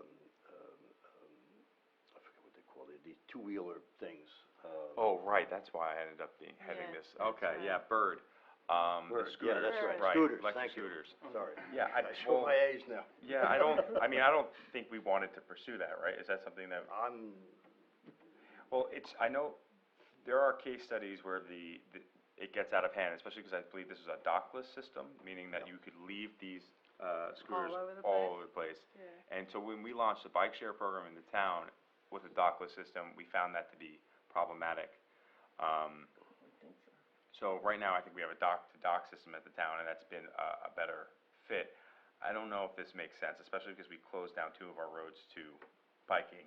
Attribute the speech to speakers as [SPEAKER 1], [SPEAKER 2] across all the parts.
[SPEAKER 1] um, two-wheeler things. uh,
[SPEAKER 2] Oh, right, that's why I ended up being,
[SPEAKER 3] Yeah,
[SPEAKER 2] heading this,
[SPEAKER 3] that's
[SPEAKER 2] okay,
[SPEAKER 3] right.
[SPEAKER 2] yeah, Bird, um,
[SPEAKER 1] Bird,
[SPEAKER 2] the
[SPEAKER 1] yeah,
[SPEAKER 2] scooters,
[SPEAKER 1] that's
[SPEAKER 3] right,
[SPEAKER 2] right,
[SPEAKER 1] scooters,
[SPEAKER 2] electric
[SPEAKER 1] thank you.
[SPEAKER 2] scooters.
[SPEAKER 1] Sorry.
[SPEAKER 2] Yeah, I,
[SPEAKER 1] I show
[SPEAKER 2] well,
[SPEAKER 1] my age now.
[SPEAKER 2] yeah, I don't, I mean, I don't think we wanted to pursue that, right? Is that something that,
[SPEAKER 1] I'm,
[SPEAKER 2] well, it's, I know, there are case studies where the, the, it gets out of hand, especially because I believe this is a dockless system, meaning that you could leave these, uh, scooters
[SPEAKER 3] All over the
[SPEAKER 2] all
[SPEAKER 3] place?
[SPEAKER 2] over the place.
[SPEAKER 3] Yeah.
[SPEAKER 2] And so when we launched the bike share program in the town with a dockless system, we found that to be problematic. Um, so right now, I think we have a dock-to-dock system at the town, and that's been a, a better fit. I don't know if this makes sense, especially because we closed down two of our roads to biking,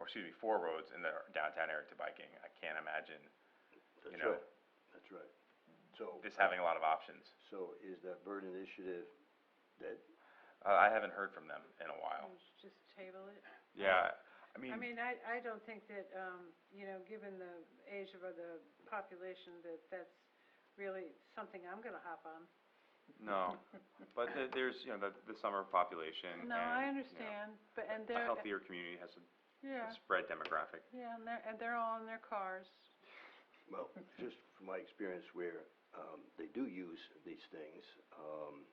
[SPEAKER 2] or excuse me, four roads in the downtown area to biking. I can't imagine
[SPEAKER 1] that's
[SPEAKER 2] know.
[SPEAKER 1] right, that's right. So,
[SPEAKER 2] this having a lot of options.
[SPEAKER 1] so is that Bird initiative that,
[SPEAKER 2] Uh, I haven't heard from them in a while.
[SPEAKER 3] Let's Just table it.
[SPEAKER 2] Yeah, I
[SPEAKER 3] I
[SPEAKER 2] mean,
[SPEAKER 3] mean, I, I don't think that, um, you know, given the age of the population, that that's really something I'm gonna hop on.
[SPEAKER 2] no, but the- there's, you know, the, the summer population and,
[SPEAKER 3] No,
[SPEAKER 2] you
[SPEAKER 3] I
[SPEAKER 2] know,
[SPEAKER 3] understand, but, and
[SPEAKER 2] A
[SPEAKER 3] they're,
[SPEAKER 2] healthier community has a
[SPEAKER 3] yeah,
[SPEAKER 2] spread demographic.
[SPEAKER 3] yeah, and they're, and they're all in their cars.
[SPEAKER 1] well, just from my experience where, um, they do use these things, um,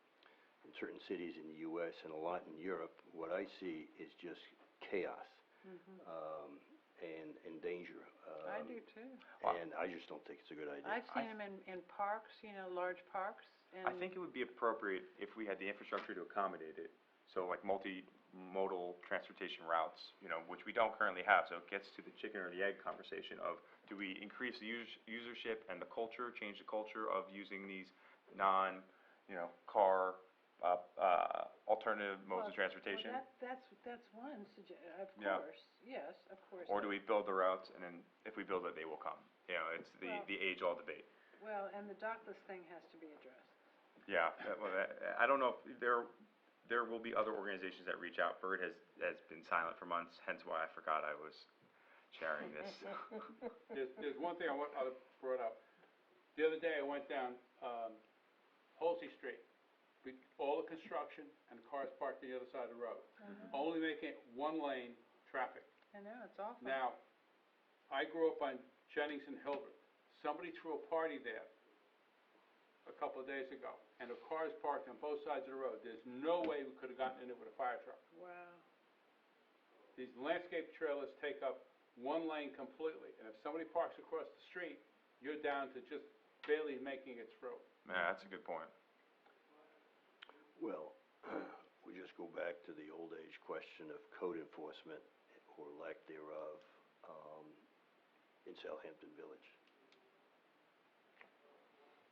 [SPEAKER 1] in certain cities in the US and a lot in Europe, what I see is just chaos,
[SPEAKER 3] Mhm.
[SPEAKER 1] um, and, and danger.
[SPEAKER 3] I
[SPEAKER 1] um,
[SPEAKER 3] do too.
[SPEAKER 2] Well-
[SPEAKER 1] And I just don't think it's a good idea.
[SPEAKER 3] I've
[SPEAKER 2] I-
[SPEAKER 3] seen them in, in parks, you know, large parks, and.
[SPEAKER 2] I think it would be appropriate if we had the infrastructure to accommodate it, so like multimodal transportation routes, you know, which we don't currently have, so it gets to the chicken or the egg conversation of, do we increase the us- usership and the culture, change the culture of using these non, you know, car, uh, uh, alternative modes
[SPEAKER 3] Well,
[SPEAKER 2] of transportation?
[SPEAKER 3] Well, that, that's, that's one sugge- of
[SPEAKER 2] Yeah.
[SPEAKER 3] course, yes, of course.
[SPEAKER 2] Or do we build the routes, and then if we build it, they will come? You know, it's the,
[SPEAKER 3] Well-
[SPEAKER 2] the age-old debate.
[SPEAKER 3] Well, and the dockless thing has to be addressed.
[SPEAKER 2] Yeah, that- well, that- I don't know if there, there will be other organizations that reach out. Bird has, has been silent for months, hence why I forgot I was sharing this.
[SPEAKER 4] There's, there's one thing I want, I brought up. The other day, I went down, um, Holsey Street, with all the construction and the cars parked on the other side of the road. Only making it one lane traffic.
[SPEAKER 3] I know, it's awful.
[SPEAKER 4] Now, I grew up on Jennings and Hilbert. Somebody threw a party there a couple of days ago, and the cars parked on both sides of the road. There's no way we could have gotten in it with a fire truck.
[SPEAKER 3] Wow.
[SPEAKER 4] These landscape trailers take up one lane completely, and if somebody parks across the street, you're down to just barely making it through.
[SPEAKER 2] Yeah, that's a good point.
[SPEAKER 1] Well, we just go back to the old age question of code enforcement or lack thereof, um, in Southampton Village.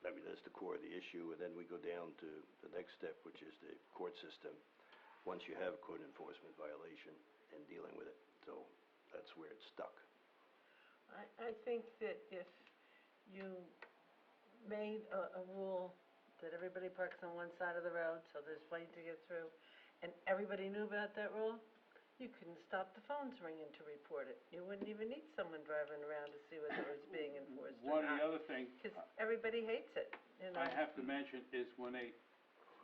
[SPEAKER 1] I mean, that's the core of the issue, and then we go down to the next step, which is the court system. Once you have a code enforcement violation and dealing with it, so that's where it's stuck.
[SPEAKER 5] I, I think that if you made a, a rule that everybody parks on one side of the road, so there's plenty to get through, and everybody knew about that rule, you couldn't stop the phones ringing to report it. You wouldn't even need someone driving around to see whether it was being enforced or
[SPEAKER 4] One, of the
[SPEAKER 5] not,
[SPEAKER 4] other thing
[SPEAKER 5] because everybody hates it, you know?
[SPEAKER 4] I have to mention is when they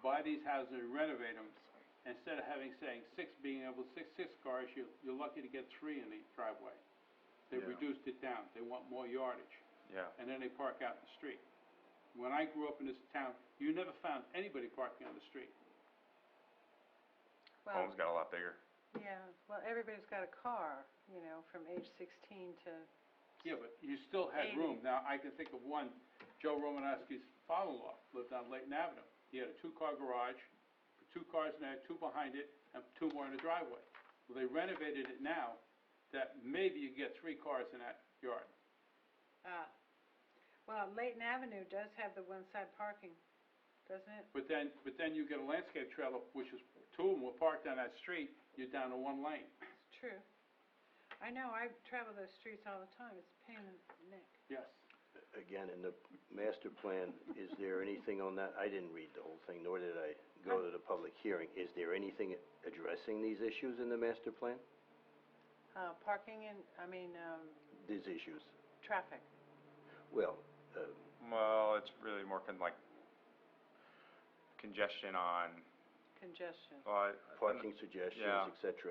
[SPEAKER 4] buy these houses and renovate them, instead of having, saying, six, being able, six, six cars, you, you're lucky to get three in the driveway. They
[SPEAKER 2] Yeah.
[SPEAKER 4] reduced it down, they want more yardage.
[SPEAKER 2] Yeah.
[SPEAKER 4] and then they park out in the street. When I grew up in this town, you never found anybody parking on the street.
[SPEAKER 3] Well,
[SPEAKER 2] Homes got a lot bigger.
[SPEAKER 3] yeah, well, everybody's got a car, you know, from age sixteen to,
[SPEAKER 4] Yeah, but you still had
[SPEAKER 3] Eighty.
[SPEAKER 4] room. Now, I can think of one, Joe Romanowski's father-in-law lived on Layton Avenue. He had a two-car garage, two cars in there, two behind it, and two more in the driveway. Well, they renovated it now, that maybe you get three cars in that yard.
[SPEAKER 3] ah. Well, Layton Avenue does have the one-side parking, doesn't it?
[SPEAKER 4] But then, but then you get a landscape trailer, which is, two of them were parked on that street, you're down to one lane.
[SPEAKER 3] It's true. I know, I travel those streets all the time, it's a pain in the neck.
[SPEAKER 4] Yes.
[SPEAKER 1] Again, in the master plan, is there anything on that? I didn't read the whole thing, nor did I go to the public hearing. Is there anything addressing these issues in the master plan?
[SPEAKER 3] Uh, parking and, I mean, um,
[SPEAKER 1] These issues?
[SPEAKER 3] traffic.
[SPEAKER 1] Well, uh,
[SPEAKER 2] Well, it's really more con- like congestion on,
[SPEAKER 3] congestion.
[SPEAKER 2] uh,
[SPEAKER 1] parking suggestions,
[SPEAKER 2] Yeah.
[SPEAKER 1] et cetera.